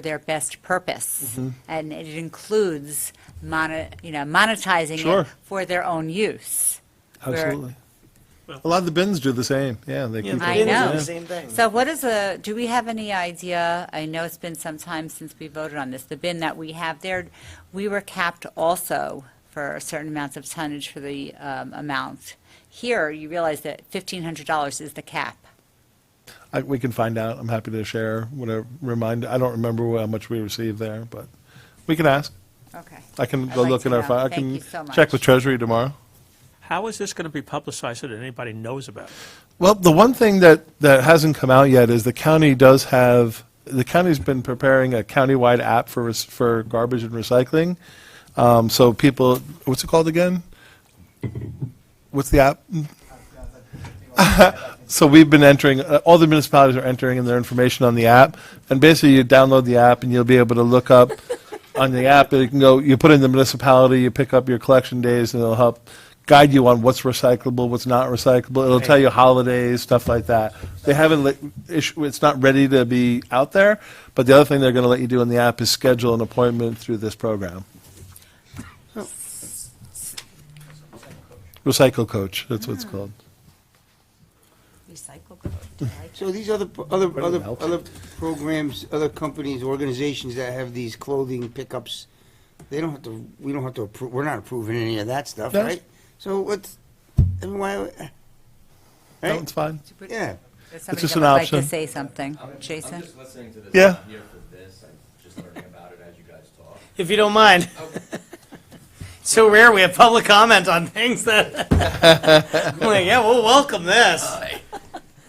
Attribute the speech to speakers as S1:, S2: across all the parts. S1: their best purpose.
S2: Mm-hmm.
S1: And it includes mono, you know, monetizing
S2: Sure.
S1: it for their own use. Where-
S2: Absolutely. A lot of the bins do the same, yeah. they keep
S1: I
S2: it,
S1: know.
S2: yeah.
S3: Same thing.
S1: So what is a, do we have any idea, I know it's been some time since we voted on this, the bin that we have there, we were capped also for certain amounts of tonnage for the um, amount. Here, you realize that $1,500 is the cap.
S2: I- We can find out, I'm happy to share, whatever, remind, I don't remember how much we received there, but we can ask.
S1: Okay.
S2: I can
S1: I'd
S2: go
S1: like
S2: look
S1: to
S2: in our
S1: know.
S2: file, I
S1: Thank you so
S2: can check
S1: much.
S2: with Treasury tomorrow.
S4: How is this going to be publicized so that anybody knows about it?
S2: Well, the one thing that, that hasn't come out yet is the county does have, the county's been preparing a countywide app for, rec- for garbage and recycling. Um, so people, what's it called again? What's the app? So we've been entering, uh, all the municipalities are entering in their information on the app. And basically, you download the app and you'll be able to look up on the app, you can go, you put in the municipality, you pick up your collection days, and it'll help guide you on what's recyclable, what's not recyclable. It'll tell you holidays, stuff like that. They haven't, let- issue- it's not ready to be out there, but the other thing they're going to let you do in the app is schedule an appointment through this program. Recycle Coach, that's what it's called.
S1: Recycle code,
S5: So these other, other, other,
S2: helps.
S5: other programs, other companies, organizations that have these clothing pickups, they don't have to, we don't have to approve, we're not approving any of that stuff,
S2: No.
S5: right? So what's, I mean, why,
S2: That
S5: right?
S2: one's fine.
S5: Yeah.
S1: Somebody
S2: just
S1: that would
S2: an
S1: like to
S2: option.
S1: say something.
S6: I'm
S1: Jason?
S6: just listening to this.
S2: Yeah.
S6: I'm here for this. I'm just learning about it as you guys talk.
S3: If you don't mind. It's so rare we have public comment on things that. I'm like, yeah, we'll welcome this.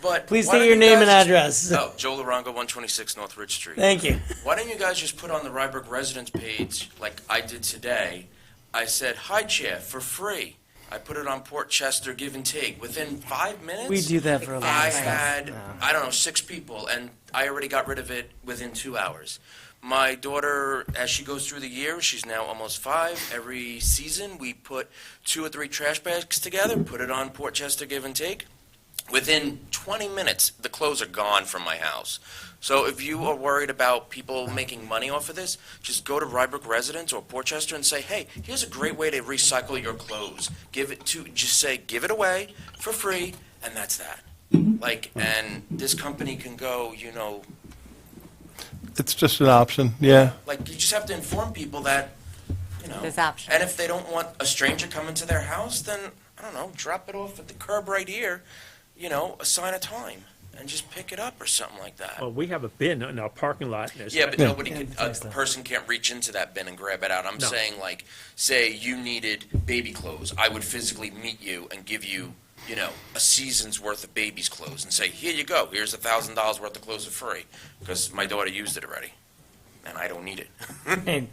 S7: But
S3: Please
S7: why
S3: state
S7: don't
S3: your
S7: you
S3: name and
S7: guys-
S3: address.
S7: No, Joe Larongo, 126 North Ridge Street.
S3: Thank you.
S7: Why don't you guys just put on the Rybrook residents page, like I did today? I said, "Hi, Chair, for free." I put it on Port Chester Give and Take. Within five minutes,
S3: We do that for a lot
S7: I
S3: of stuff.
S7: had, I don't know, six people, and I already got rid of it within two hours. My daughter, as she goes through the year, she's now almost five. Every season, we put two or three trash bags together, put it on Port Chester Give and Take. Within 20 minutes, the clothes are gone from my house. So if you are worried about people making money off of this, just go to Rybrook residents or Portchester and say, hey, here's a great way to recycle your clothes. Give it to, just say, give it away for free, and that's that. Like, and this company can go, you know,
S2: It's just an option, yeah.
S7: like, you just have to inform people that, you know.
S1: There's options.
S7: And if they don't want a stranger coming to their house, then, I don't know, drop it off at the curb right here, you know, assign a time, and just pick it up or something like that.
S4: Well, we have a bin in our parking lot. and there's-
S7: Yeah, but
S2: Yeah.
S7: nobody can, a person can't reach into that bin and grab it out. I'm
S4: No.
S7: saying, like, say you needed baby clothes, I would physically meet you and give you, you know, a season's worth of baby's clothes and say, here you go, here's a thousand dollars worth of clothes for free, because my daughter used it already, and I don't need it.
S3: And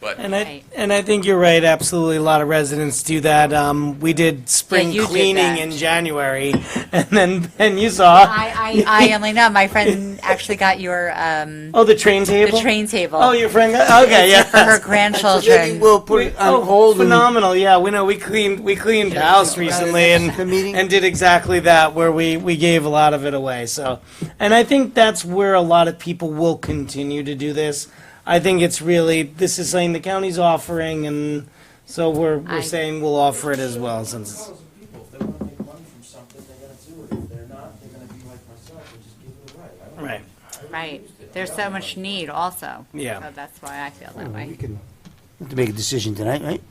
S7: But
S3: and I,
S1: Right.
S3: and I think you're right, absolutely, a lot of residents do that. Um, we did spring
S1: you did
S3: cleaning
S1: that.
S3: in January, and then, and you saw,
S1: I, I, I only know, my friend actually got your, um,
S3: oh, the train
S1: the
S3: table?
S1: train table.
S3: Oh, your friend, got- okay, yeah.
S1: For her
S5: Maybe
S1: grandchildren.
S5: we'll put it
S3: oh,
S5: on hold and.
S3: phenomenal! Yeah, we know we cleaned we cleaned house recently
S5: next
S3: and
S5: the meeting?
S3: and did exactly that where we we gave a lot of it away. So, and I think that's where a lot of people will continue to do this. I think it's really this is something the county's offering, and so we're we're
S1: I-
S3: saying we'll offer it as well since.
S6: People, if they want to make money from something, they're going to do it. If they're not, they're going to be like myself and just give it away. I don't
S3: Right.
S1: Right. There's so much need also.
S3: Yeah.
S1: So that's why I feel that
S5: We
S1: way.
S5: can have to make a decision tonight, right?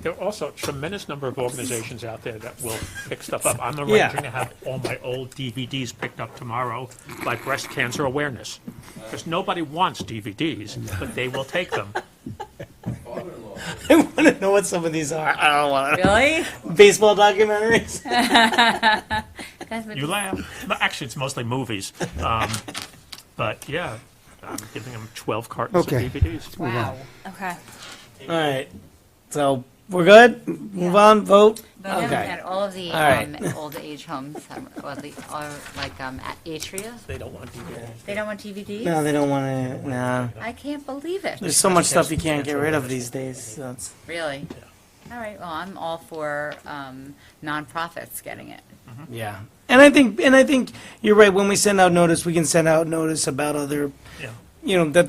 S4: There are also a tremendous number of organizations out there that will pick stuff up. I'm arranging to have all my old DVDs picked up tomorrow, like breast cancer awareness. Because nobody wants DVDs, but they will take them.
S3: I want to know what some of these are. I don't want to
S1: Really?
S3: baseball documentaries.
S1: That's what-
S4: You laugh. But Actually, it's mostly movies. Um, But yeah, I'm giving them 12 cartons of
S5: Okay.
S4: DVDs.
S1: Wow. Okay.
S3: All right, so we're good. Move on. Vote.
S1: But then we
S3: Okay.
S1: had all of the
S3: All right.
S1: um, old age homes, um, or the, or like um, a- atria,
S4: They don't want DVDs.
S1: they don't want DVDs?
S3: No, they don't want to. No.
S1: I can't believe it,
S3: There's so much stuff you can't get rid of these days. so it's-
S1: really. All right, well, I'm all for um, nonprofits getting it.
S3: yeah. And I think, and I think you're right. When we send out notice, we can send out notice about other,
S4: Yeah.
S3: you know, that